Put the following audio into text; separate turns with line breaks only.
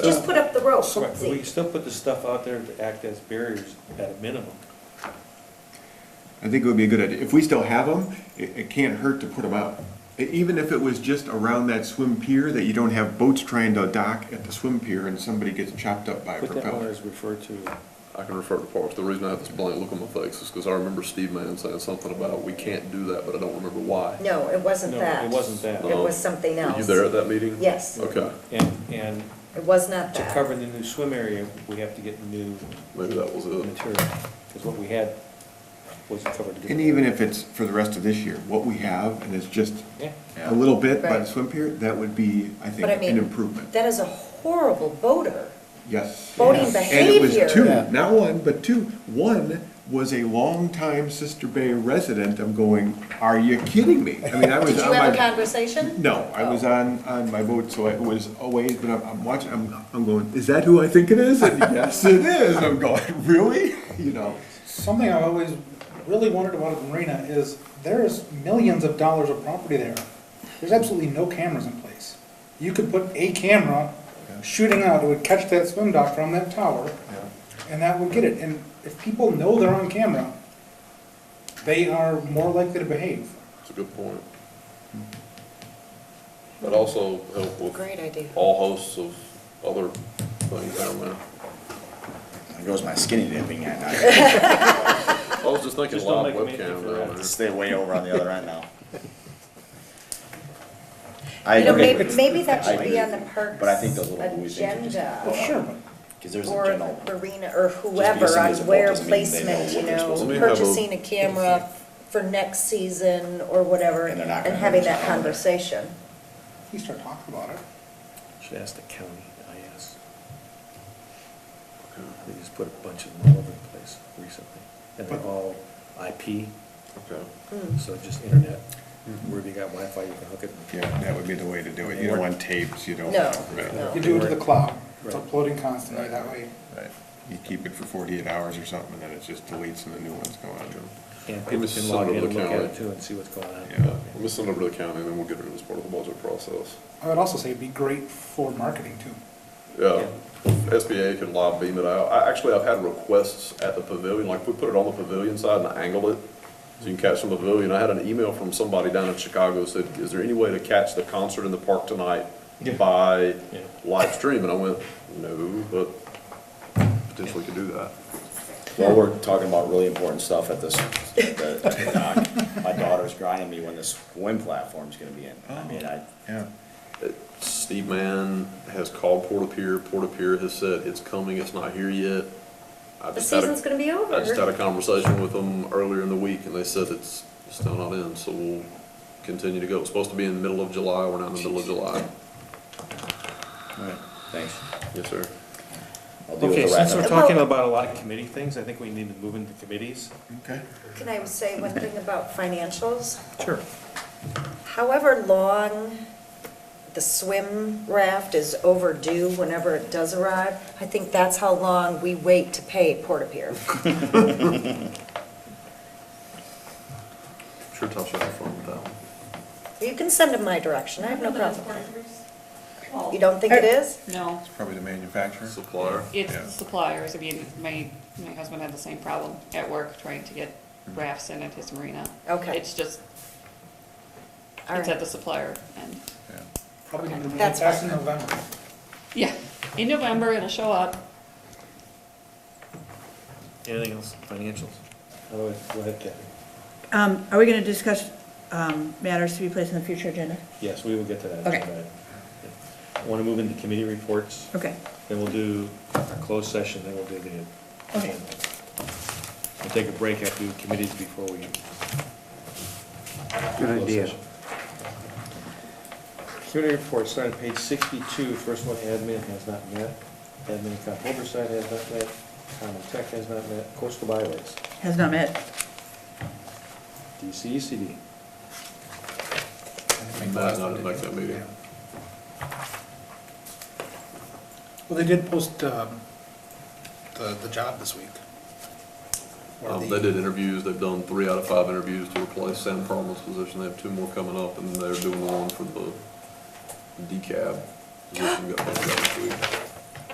Just put up the rope.
Right, but we can
See,
still put the stuff out there to act as barriers at a minimum.
I think it would be a good idea. If we still have them, it, it can't hurt to put them out. E- Even if it was just around that swim pier, that you don't have boats trying to dock at the swim pier and somebody gets chopped up by a
Put that one
propeller.
as referred to,
I can refer to Parks. The reason I have this blank look on my face is because I remember Steve Mann saying something about, we can't do that, but I don't remember why. Um,
No, it wasn't
No,
that.
it wasn't that.
It was something else.
Were you there at that meeting?
Yes.
Okay,
and, and
It was not
to
that.
cover the new swim area, we have to get new
maybe that was it.
material, because what we had wasn't covered.
And even if it's for the rest of this year, what we have, and it's just
Yeah,
a little bit by the
Right.
swim pier, that would be, I think,
But I mean,
an improvement.
That is a horrible boater.
Yes.
Boating
And it
behavior.
was two,
Yeah.
not one, but two. One was a longtime Sister Bay resident. I'm going, are you kidding me? I mean, I was
Did
on
you have a
my.
conversation?
No, I was on, on my boat, so it was away, but I'm, I'm watching, I'm, I'm going, is that who I think it is? And yes, it is. I'm going, really? You know,
Something I've always really wondered about the marina is there is millions of dollars of property there. There's absolutely no cameras in place. You could put a camera shooting out, it would catch that swim dock from that tower, and that would get it. And if people know they're on camera, they are more likely to behave.
It's a good point. But also help with
Great idea.
all hosts of other things down there.
There goes my skinny dipping at night.
I was just thinking
Just don't
live
make a
webcam
commitment for
down
that.
there.
Stay way over on the other end now. I
You know,
agree
maybe,
with,
maybe that
I
should be
agree.
on the parks.
But I think those little buoys need to just-
Well,
Agenda,
sure, but
because there's a
or
general,
the marina, or whoever, on
somebody's a boat
where
doesn't mean they know
placement, you
what they're
know,
supposed
to do.
purchasing a camera for next season or whatever,
And they're not
and
gonna
having
use
that
the camera.
conversation.
you start talking about it.
should ask the county, I asked. They just put a bunch of them all over the place recently, and they're all IP,
Okay.
Hmm.
so just internet, wherever you got Wi-Fi, you can hook it.
Mm-hmm. yeah, that would be the way to do it. You don't want tapes, you don't.
No,
Right.
no.
You do it to the cloud, it's
Right.
uploading constantly that way.
Right. You keep it for forty-eight hours or something, and then it just deletes and the new ones go on.
And
Give
people
us
can
some
log in
of the
and look at
county.
it too and see what's going on.
Yeah.
Let me send it over to the county, and then we'll get it as part of the budget process.
I would also say it'd be great for marketing too.
Yeah, SBA can live beam it out. I, actually, I've had requests at the pavilion, like, we put it on the pavilion side and angle it, so you can catch from the pavilion. I had an email from somebody down in Chicago said, is there any way to catch the concert in the park tonight
Yeah.
by
Yeah.
live stream? And I went, no, but potentially could do that.
well, we're talking about really important stuff at this, at the- at the dock. My daughter's grinding me when this swim platform's gonna be in.
Oh.
I mean, I,
Yeah.
Steve Mann has called Porta Pier, Porta Pier has said, it's coming, it's not here yet. I
The
just had a-
season's gonna be over.
I just had a conversation with them earlier in the week, and they said it's still not in, so we'll continue to go. It's supposed to be in the middle of July, we're not in the middle of July.
all right, thanks.
Yes, sir.
I'll deal with
Okay,
the
since
rest
we're
of it.
talking about a lot of committee things, I think we need to move into committees.
Okay.
Can I say one thing about financials?
Sure.
However long the swim raft is overdue whenever it does arrive, I think that's how long we wait to pay Porta Pier.
Sure, Tasha, have fun with that one.
You can send them my direction, I have no problem.
Well,
You don't think it is?
No,
Probably the manufacturer.
Supplier.
it's
Yeah.
the suppliers. I mean, my, my husband had the same problem at work trying to get rafts in at his marina.
Okay.
It's just,
All
it's at
right.
the supplier and,
Yeah.
Probably gonna be
That's
back in
fine.
November.
yeah, in November it'll show up.
Anything else, financials? Otherwise, go ahead, Kathy.
Um, Are we going to discuss um, matters to be placed on the future agenda?
Yes, we will get to that.
Okay.
Want to move into committee reports,
Okay.
then we'll do a closed session, then we'll do the.
Okay.
We'll take a break after the committees before we. Good idea. Committee report, starting page sixty-two, first one, admin has not met, admin account oversight has not met, common tech has not met, coastal byways,
Has not met.
DCECD.
Matt and I didn't make that meeting.
Well, they did post um, the, the job this week. Or
Um,
the-
they did interviews, they've done three out of five interviews to replace Sam Farmer's position, they have two more coming up, and they're doing one for the decab. position. Got that this week.